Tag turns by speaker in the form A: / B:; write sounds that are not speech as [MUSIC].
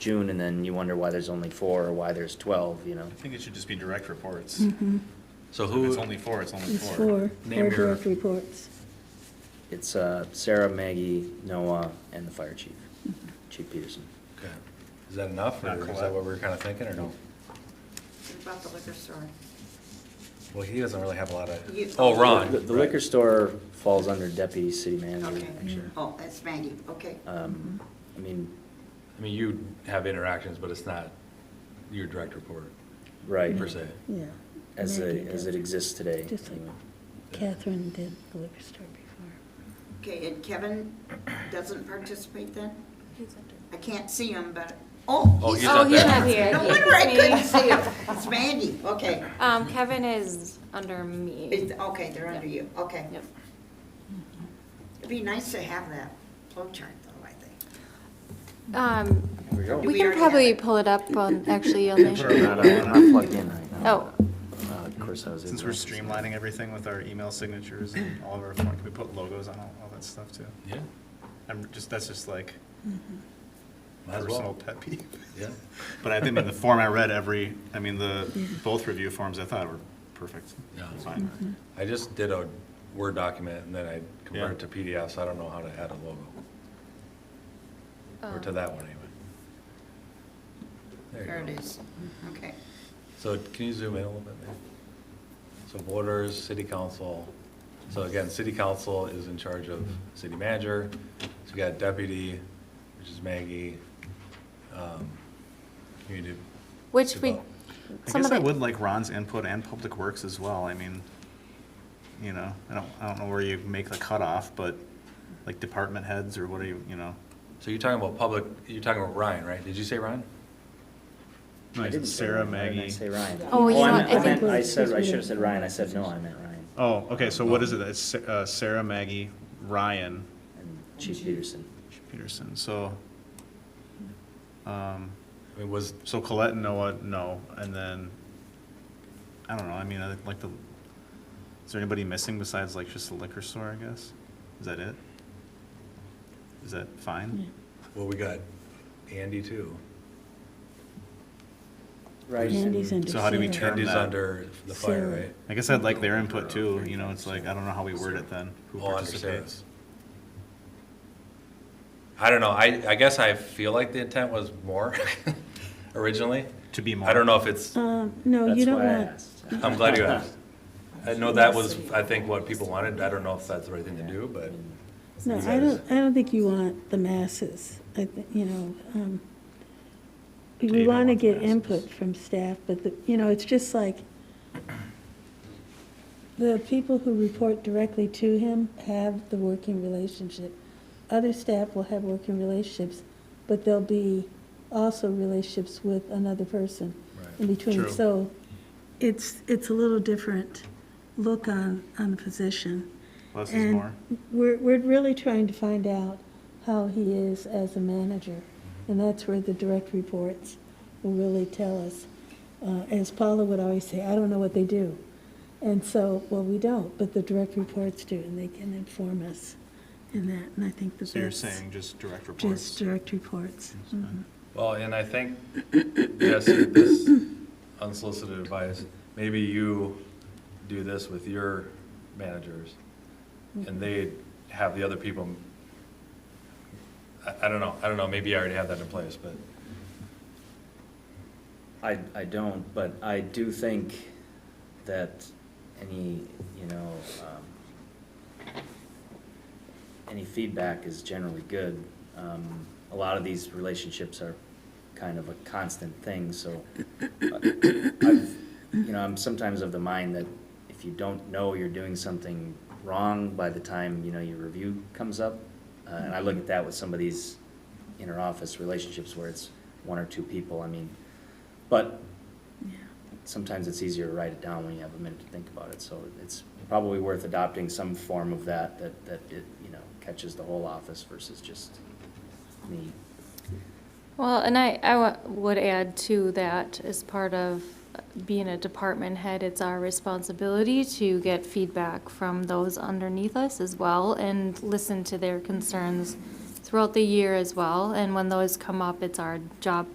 A: June, and then you wonder why there's only four or why there's 12, you know?
B: I think it should just be direct reports.
C: So
B: If it's
C: who,
B: only four, Mm-hmm. it's only
D: Mm-hmm. It's
B: four.
D: four, four
C: Name your-
D: direct reports.
A: It's uh, Sarah, Maggie, Noah, and the fire chief, Chief Peterson.
C: okay.
E: Is that enough,
B: Not
E: or is
B: collect-
E: that what we were kind of thinking, or no?
F: What about the liquor store?
E: Well, he doesn't really have a lot of,
F: You-
C: Oh, Ron.
A: The the liquor store falls under deputy city manager,
F: Okay.
A: actually.
F: Oh, that's Maggie, okay.
A: Um, I mean,
C: I mean, you have interactions, but it's not your direct report,
A: right,
C: per se.
D: Yeah.
A: as
D: Maggie
A: it, as
D: did.
A: it exists today. Mm-hmm.
D: Just like
A: anyway.
D: Catherine did the liquor store before.
F: Okay, and Kevin doesn't participate then? I can't see him, but, oh.
C: Oh, he's
G: Oh,
C: not
G: he's
C: there.
G: not here.
F: No
G: It's
F: wonder I
G: me.
F: couldn't see him. Uh, It's Maggie, [LAUGHS] okay.
G: Um, Kevin is under me.
F: It's, okay, they're under you, okay.
G: Yep.
F: It'd be nice to have that flow chart though, I think.
G: Um,
A: There we go.
F: Do
G: we
F: we
G: can
F: already
G: probably
F: have it?
G: pull it up
F: [LAUGHS]
G: on, actually on
A: Sure, I'm
G: the,
A: not I'm
G: [LAUGHS]
A: not plugged in right now.
G: oh,
A: Uh, Of course, I was.
B: Since
A: ignorant.
B: we're streamlining everything with our email signatures and all of our, form- can we put logos on all, all that stuff too?
C: Yeah,
B: I'm just, that's just like
D: Mm-hmm.
C: might as
B: personal
C: well.
B: pet peeve.
C: Yeah,
B: But I think in the form I read, every, I mean, the, both review forms I thought were perfect.
C: Yeah. Mm-hmm.
B: Fine.
C: I just did a Word document and then I converted to
B: Yeah.
C: PDF, so I don't know how to add a logo. Or to
G: Um.
C: that one, anyway. There you
F: There
C: go.
F: it is, okay.
C: So can you zoom in a little bit there? So voters, city council, so again, city council is in charge of city manager, so we got deputy, which is Maggie. um, Community.
G: which we,
C: develop-
B: I
G: some of
B: guess I
G: the,
B: would like Ron's input and public works as well, I mean, you know, I don't, I don't know where you make the cutoff, but like department heads or what are you, you know?
C: So you're talking about public, you're talking about Ryan, right? Did you say Ryan?
A: I didn't say
B: Sarah,
A: Ryan, why didn't I
B: Maggie.
A: say Ryan.
G: Oh, well, you
A: I
G: know,
A: meant-
G: I
A: I meant,
D: think-
A: I said, I should have said Ryan, I said, no, I meant Ryan,
B: Oh, okay, so what is it, it's Sa- uh, Sarah, Maggie, Ryan
A: and Chief Peterson.
B: Peterson, so. Um,
C: I mean, was,
B: so Colette and Noah, no, and then, I don't know, I mean, I like the, is there anybody missing besides like just the liquor store, I guess? Is that it? Is that fine?
C: well, we got Andy too.
A: Right.
D: Andy's under.
B: So how do we
D: Sarah.
B: turn-
C: Andy's
B: that.
C: under the fire,
D: Sarah.
C: right?
B: I guess I'd like their input too, you know, it's like, I don't know how we word it then, who
C: Oh, under Sarah.
B: participates.
C: I don't know, I, I guess I feel like the intent was more [LAUGHS] originally.
B: To be more.
C: I don't know if it's,
D: Um, no, you
A: That's
D: don't
A: why I
D: want, [LAUGHS]
A: asked.
C: I'm glad you asked. I know that was, I think, what people wanted. I don't know if that's the right thing to do, but
D: no, I don't, I don't think you want the masses. I, thi- you know, um,
B: Do you
D: we
B: not
D: want to
B: want the
D: get
B: masses?
D: input from staff, but the, you know, it's just like the people who report directly to him have the working relationship. Other staff will have working relationships, but there'll be also relationships with another person in between.
B: True.
D: So it's, it's a little different look on, on the position.
B: Less is
D: And
B: more.
D: We're, we're really trying to find out how he is as a manager. And that's where the direct reports will really tell us. Uh, as Paula would always say, I don't know what they do. And so, well, we don't, but the direct reports do, and they can inform us in that. And I think that that's.
B: So you're saying just direct reports?
D: Just direct reports. Mhm.
C: Well, and I think, yes, this unsolicited advice, maybe you do this with your managers, and they have the other people, I, I don't know, I don't know, maybe I already have that in place, but,
A: I, I don't, but I do think that any, you know, um, any feedback is generally good. Um, a lot of these relationships are kind of a constant thing, so uh, I've, you know, I'm sometimes of the mind that if you don't know you're doing something wrong by the time, you know, your review comes up, uh, and I look at that with some of these inter-office relationships where it's one or two people, I mean, but sometimes it's easier to write it down when you have a minute to think about it, so it's probably worth adopting some form of that, that, that it, you know, catches the whole office versus just me.
G: well, and I, I wa- would add to that, as part of uh, being a department head, it's our responsibility to get feedback from those underneath us as well and listen to their concerns throughout the year as well. And when those come up, it's our job